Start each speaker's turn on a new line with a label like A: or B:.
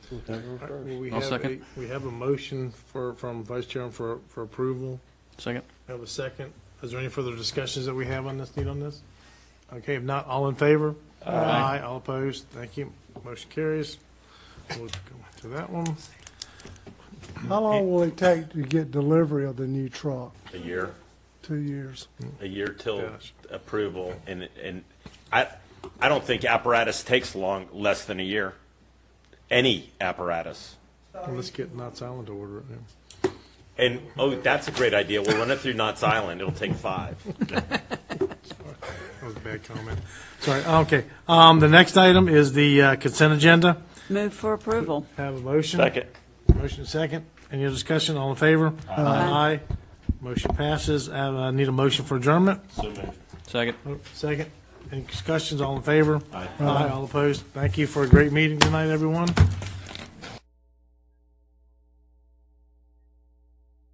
A: September
B: All right, well,
A: first.
B: we
C: I'll
B: have
C: second.
B: a- We have a motion for, from Vice Chairman for, for approval.
C: Second?
B: I have a second. Is there any further discussions that we have on this, need on this? Okay, if not, all in favor?
C: Aye.
B: All opposed? Thank you. Motion carries. We'll go to that one.
A: How long will it take to get delivery of the new truck?
D: A year,
A: Two years.
D: a year till
B: Gosh.
D: approval, and, and I, I don't think apparatus takes long, less than a year. Any apparatus.
B: Let's get Knott's Island to order it now.
D: And, oh, that's a great idea, we'll run it through Knott's Island, it'll take five.
B: That was a bad comment. Sorry, okay. Um, the next item is the uh, consent agenda.
E: Move for approval.
B: Have a motion?
D: Second.
B: Motion second. Any other discussion? All in favor? Aye. Motion passes. Uh, I need a motion for adjournment.
D: So moved.
C: Second.
B: Oh, Second. Any discussions? All in favor?
D: Aye.
B: All opposed? Thank you for a great meeting tonight, everyone.